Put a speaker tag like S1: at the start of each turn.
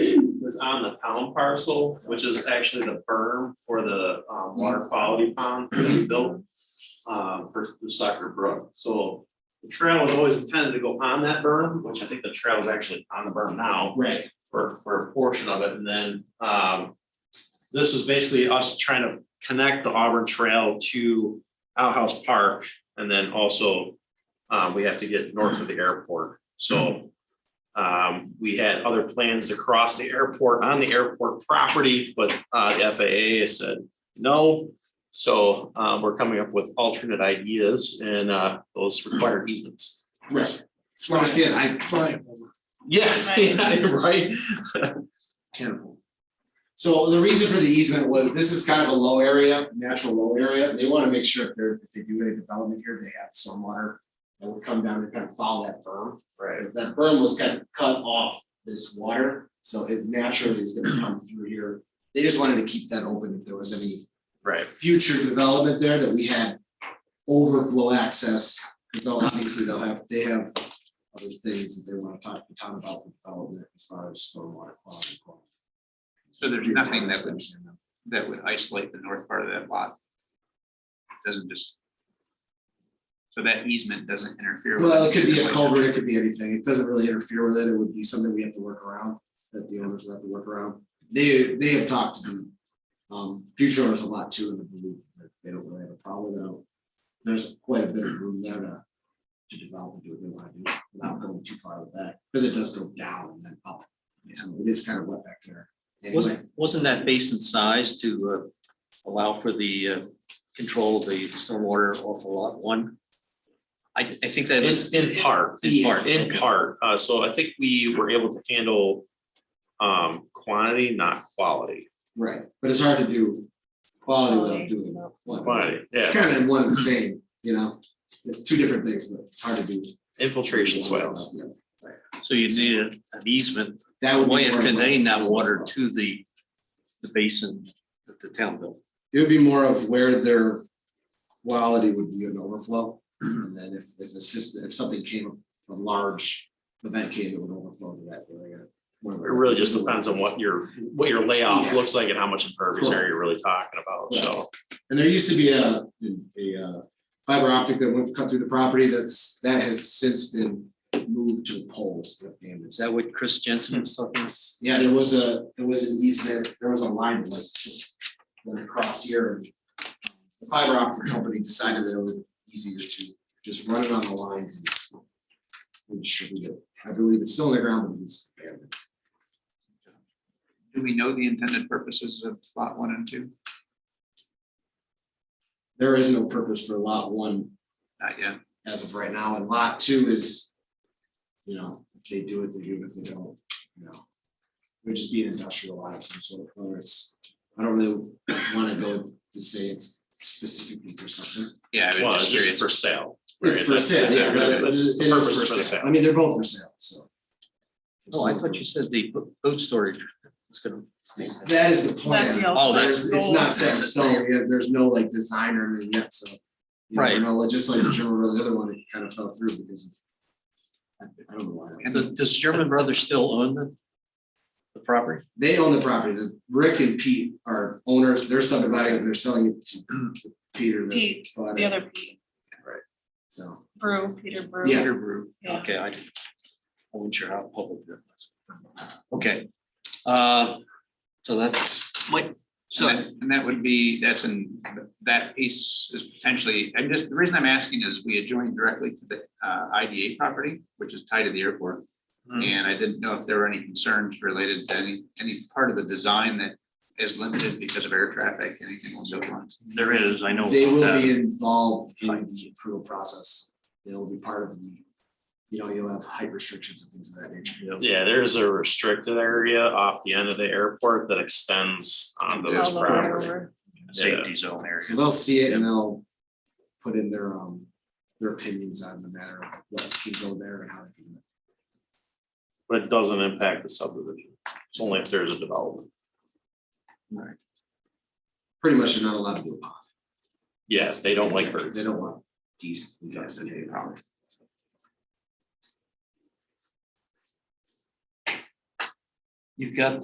S1: on the town parcel, which is actually the berm for the um, water quality pond that we built um, for the Sucker Brook. So the trail was always intended to go on that berm, which I think the trail is actually on the berm now
S2: Right.
S1: for, for a portion of it. And then um, this is basically us trying to connect the Auburn Trail to Outhouse Park. And then also, um, we have to get north of the airport. So um, we had other plans to cross the airport on the airport property, but uh, the FAA said no. So um, we're coming up with alternate ideas and uh, those require easements.
S2: Right. That's what I said, I,
S1: Yeah, yeah, right.
S2: so the reason for the easement was this is kind of a low area, natural low area. They want to make sure if they're, if they do any development here, they have stormwater that would come down and kind of follow that berm.
S1: Right.
S2: If That berm was kind of cut off this water, so it naturally is gonna come through here. They just wanted to keep that open if there was any
S1: Right.
S2: future development there that we had overflow access. Because they'll obviously they'll have, they have other things that they want to talk to town about for development as far as stormwater quality.
S3: So there's nothing that would, that would isolate the north part of that lot. Doesn't just. So that easement doesn't interfere. with
S2: Well, it could be a
S3: anything.
S2: culvert, it could be anything. It doesn't really interfere with it. It would be something we have to work around, that the owners would have to work around. They, they have talked to um, future owners a lot too, and I believe that they don't really have a problem though. There's quite a bit of room there to, to develop and do what they want to do without going too far with that, because it does go down and then up. So it is kind of wet back there. Anyway,
S4: Wasn't, wasn't that basin size to uh, allow for the uh, control of the stormwater off of lot one? I, I think that
S1: In,
S4: is,
S1: in part,
S2: E.
S4: In part,
S1: in
S4: okay.
S1: part. Uh, so I think we were able to handle um, quantity, not quality.
S2: right, but it's hard to do quality without doing quantity.
S1: Quantity,
S2: It's
S1: yeah,
S2: kind of one and the same, you know, it's two different things, but it's hard to do.
S1: infiltration swales.
S2: Yeah.
S4: so you need an easement,
S2: That
S4: a
S2: would be.
S4: way of
S2: more a-
S4: conveying that water to the, the basin that the town built.
S2: It would be more of where their quality would be an overflow, and then if, if a system, if something came, a large event came, it would overflow to that area.
S1: It really just depends on what your, what your layoff looks like and how much impervious area you're really talking about, so.
S2: And there used to be a, a uh, fiber optic that went cut through the property that's, that has since been moved to poles that damaged.
S4: Is that what Chris Jensen was talking? about?
S2: Yeah, there was a, there was an easement, there was a line that was just went across here. and The fiber optic company decided that it was easier to just run it on the lines and and distribute it. I believe it's still in the ground, but it's abandoned.
S3: Do we know the intended purposes of lot one and two?
S2: There is no purpose for lot one
S3: Not yet.
S2: as of right now, and lot two is, you know, if they do it, they do it, if they don't, you know. It would just be an industrial lot of some sort, whether it's, I don't really wanna go to say it's specifically for something.
S3: Yeah, I
S1: Well,
S3: was
S1: it's
S3: just
S1: just
S3: curious.
S1: for sale.
S2: It's for
S1: That's-
S2: sale, yeah, but it- it
S1: That's
S2: is
S1: the purpose for
S2: for
S1: the
S2: sale,
S1: sale.
S2: I mean, they're both for sale, so.
S4: Oh, I thought you said the bo- boat storage was gonna.
S2: That is the plan.
S5: That's the
S4: Oh, that's-
S2: There's- It's not set in stone, yeah, there's no like designer yet, so. you never
S4: Right.
S2: know, just like the German, Brothers, the other one, it kind of fell through because. of- I I don't know why.
S4: Does- Does German Brothers still own the, the property?
S2: they own the property, the Rick and Pete are owners, they're subdividing it, they're selling it to Peter. the
S5: Pete,
S2: bought
S5: The
S2: it,
S5: other Pete,
S2: So,
S5: Brew, Peter Brew.
S2: Yeah.
S4: Peter Brew.
S5: Yeah.
S4: Okay, I didn't- I wasn't sure how public that was. Okay, uh, so that's my,
S3: And
S4: so,
S3: that- and that would be, that's in, that piece is potentially, I'm just, the reason I'm asking is we adjoin directly to the uh, IDA property, which is tied to the airport.
S4: Hmm.
S3: And I didn't know if there were any concerns related to any, any part of the design that is limited because of air traffic, anything was built on.
S6: There is, I know.
S2: they
S6: about
S2: will
S6: that.
S2: be involved in the approval process, they'll be part of the, you know, you'll have height restrictions and things of that nature.
S1: Yeah, there's a restricted area off the end of the airport that extends onto
S3: Yeah.
S1: this
S5: All the way
S1: property.
S5: over.
S6: Safety zone area.
S2: So they'll see it and they'll put in their, um, their opinions on the matter of what can go there and how it can.
S1: But it doesn't impact the subdivision. It's only if there's a development.
S2: Pretty much they're not allowed to do a pond.
S1: Yes, they don't like birds.
S2: They don't want geese. and ducks and any problem.
S4: you've got